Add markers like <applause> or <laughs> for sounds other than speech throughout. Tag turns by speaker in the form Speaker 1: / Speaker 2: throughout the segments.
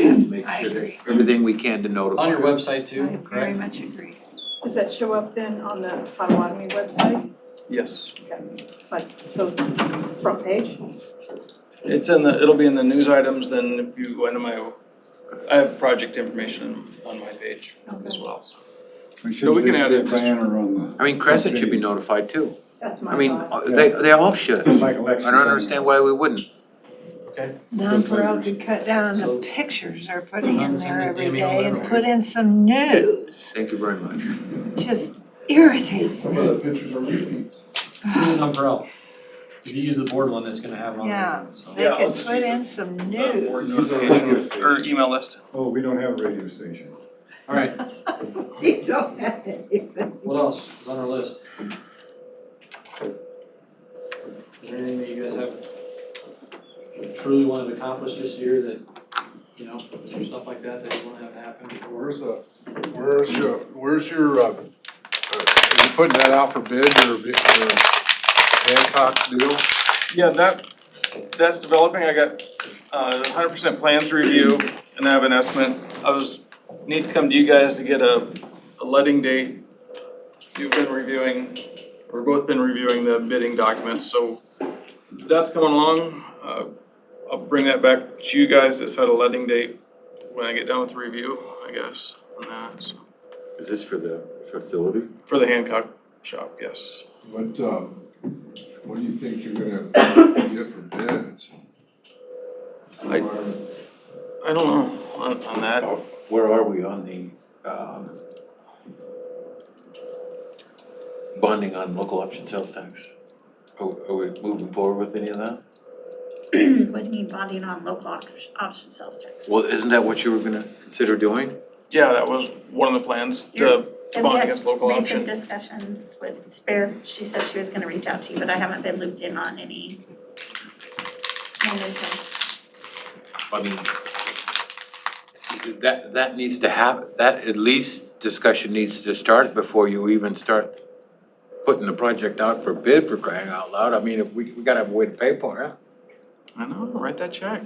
Speaker 1: making
Speaker 2: I
Speaker 1: sure that
Speaker 2: agree.
Speaker 1: everything we can to
Speaker 3: It's on
Speaker 1: notify.
Speaker 3: your
Speaker 2: I
Speaker 3: website too,
Speaker 2: very
Speaker 3: correct?
Speaker 2: much agree.
Speaker 4: Does that show up then on the Potawatomi website,
Speaker 5: Yes,
Speaker 4: like, so, front page?
Speaker 5: it's in the, it'll be in the news items, then if you go into my, I have project information on my page as well, so.
Speaker 6: We should
Speaker 5: No, we
Speaker 6: at
Speaker 5: can
Speaker 6: least
Speaker 5: add
Speaker 6: get a
Speaker 5: it just-
Speaker 6: banner on
Speaker 1: I mean, Crescent should be
Speaker 6: Okay.
Speaker 1: notified too.
Speaker 4: That's
Speaker 1: I
Speaker 4: my
Speaker 1: mean, uh,
Speaker 4: thought. <laughs>
Speaker 1: they, they all should.
Speaker 6: the.
Speaker 1: I
Speaker 6: Like election
Speaker 1: don't understand why we wouldn't.
Speaker 3: Okay.
Speaker 2: Nonpareil could cut down
Speaker 3: So-
Speaker 2: on the pictures they're putting in
Speaker 3: Send
Speaker 2: there
Speaker 3: the
Speaker 2: every
Speaker 3: DME
Speaker 2: day and
Speaker 3: over.
Speaker 2: put in some news.
Speaker 1: Thank you very much.
Speaker 2: Just irritates
Speaker 7: Some
Speaker 2: me.
Speaker 7: of the pictures are repeats.
Speaker 3: Even Umbrella. If you use the board one, it's gonna have on
Speaker 2: Yeah.
Speaker 3: there, so.
Speaker 2: They
Speaker 5: Yeah, I'll
Speaker 2: could
Speaker 5: just
Speaker 2: put
Speaker 5: use
Speaker 2: in some
Speaker 5: Uh, or
Speaker 2: news.
Speaker 5: notification Or email list.
Speaker 6: Oh, we don't have a radio station.
Speaker 3: All right,
Speaker 4: We don't have anything.
Speaker 3: what else is on our list? Is there anything that you guys have truly wanted to accomplish this year that, you know, is there stuff like that that you wanna have happen before?
Speaker 7: Where's the, where's your, where's your, uh, uh, are you putting that out for bid or, bi- or Hancock deal?
Speaker 5: Yeah, that, that's developing, I got uh hundred percent plans to review, and I have an estimate. I was, need to come to you guys to get a, a letting date. You've been reviewing, or both been reviewing the bidding documents, so that's coming along. Uh, I'll bring that back to you guys to set a letting date when I get done with the review, I guess, on that, so,
Speaker 1: Is this for the facility?
Speaker 5: for the Hancock shop, yes.
Speaker 7: What, um, what do you think you're gonna get for bids?
Speaker 5: I- I don't know on, on that.
Speaker 1: Uh, Where are we on the, um, bonding on local option sales tax? Are, are we moving forward with any of that?
Speaker 8: What do you mean bonding on local op- option sales tax?
Speaker 1: Well, isn't that what you were gonna consider doing?
Speaker 5: Yeah, that was one of the plans,
Speaker 8: Yeah.
Speaker 5: to, to bond
Speaker 8: Yeah.
Speaker 5: against local
Speaker 8: Recent
Speaker 5: option.
Speaker 8: discussions with Spare, she said she was gonna reach out to you, but I haven't been looped in on any momentum.
Speaker 1: I mean, that, that needs to happen, that at least discussion needs to start before you even start putting the project out for bid for crying out loud. I mean, if we, we gotta have a way to pay for it.
Speaker 5: I know, write that check.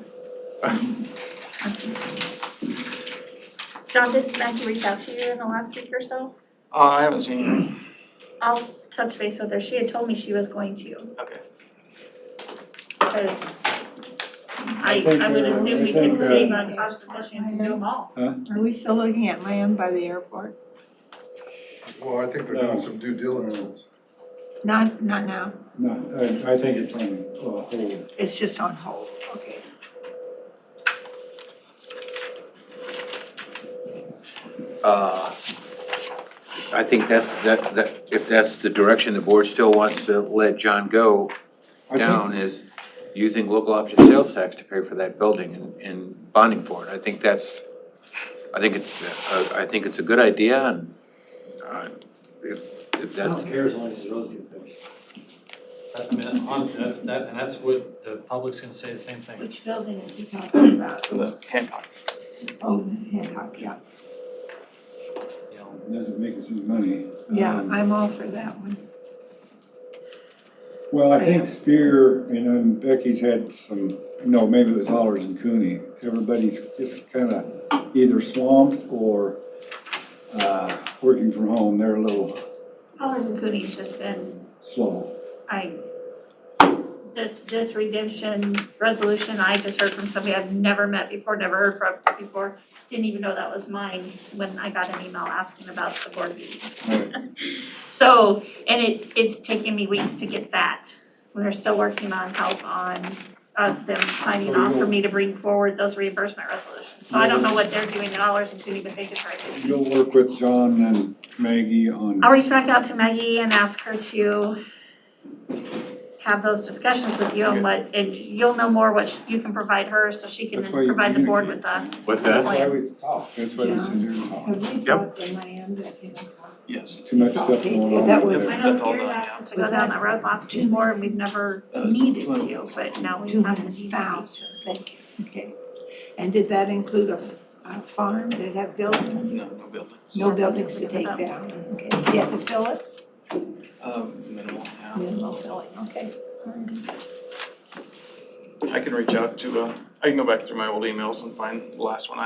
Speaker 8: John, did Maggie reach out to you in the last week or so?
Speaker 5: Uh, I haven't seen
Speaker 8: I'll touch base with her. She had told me she was going to,
Speaker 5: you. Okay.
Speaker 8: because I,
Speaker 6: think,
Speaker 8: I would
Speaker 6: uh,
Speaker 8: assume
Speaker 6: I
Speaker 8: we
Speaker 6: think,
Speaker 8: can save
Speaker 2: uh,
Speaker 8: on cost efficiency and do them all.
Speaker 2: Are we still looking at land by the airport?
Speaker 7: Well, I think they're doing some due diligence.
Speaker 2: Not, not now.
Speaker 6: No, I, I think it's on, uh, hold.
Speaker 2: It's just on hold. Okay.
Speaker 1: Uh, I think that's, that, that, if that's the direction the board still wants to let John go
Speaker 6: I think-
Speaker 1: down is using local option sales tax to pay for that building and, and bonding for it. I think that's, I think it's, uh, I think it's a good idea and, uh, if, if
Speaker 3: I
Speaker 1: that's.
Speaker 3: don't care as long as the roads get fixed. That's, I mean, honestly, that's, that, and that's what the public's gonna say the same thing.
Speaker 2: Which building is he talking about?
Speaker 5: For the Hancock.
Speaker 2: Oh, Hancock, yeah.
Speaker 3: You know,
Speaker 6: Doesn't make us any money.
Speaker 2: Yeah,
Speaker 6: Um,
Speaker 2: I'm all for that one.
Speaker 6: Well, I think Spear and um, Becky's had some, no, maybe it was Hollers and Cooney. Everybody's just kind of either swamped or uh, working from home. They're a little
Speaker 8: Powers and Cooney's just been
Speaker 6: slow.
Speaker 8: I, this, this redemption resolution, I just heard from somebody I've never met before, never heard from before. Didn't even know that was mine when I got an email asking about the board meeting.
Speaker 6: Right.
Speaker 8: So, and it, it's taken me weeks to get that. We're still working on help on, uh, them signing off for me to bring forward those reimbursement resolutions. So I don't know what they're doing at Allers and Cooney, but they just write this.
Speaker 6: You'll work with John and Maggie on.
Speaker 8: I'll reach back out to Maggie and ask her to have those discussions with you and what, and you'll know more what you can provide her, so she can
Speaker 6: That's why you
Speaker 8: provide the board with the.
Speaker 1: What's
Speaker 6: That's why we talk. That's why we sit here and talk.
Speaker 2: Have we bought the land at Hancock?
Speaker 5: Yes.
Speaker 6: Too much stuff going on.
Speaker 2: That was-
Speaker 8: I
Speaker 5: That's
Speaker 8: know
Speaker 5: all
Speaker 8: Spears
Speaker 5: done,
Speaker 8: asked
Speaker 5: yeah.
Speaker 8: us to go down that road lots before, and we've never needed to, but now we
Speaker 2: Two
Speaker 8: have the
Speaker 2: hundred
Speaker 8: need.
Speaker 2: thousand, thank you, okay. And did that include a, a farm, did it have buildings?
Speaker 5: No, no buildings.
Speaker 2: No buildings to take down, okay, Did you have to fill it?
Speaker 5: Um, minimal, yeah.
Speaker 2: Minimal filling, okay.
Speaker 5: I can reach out to, uh, I can go back through my old emails and find the last one I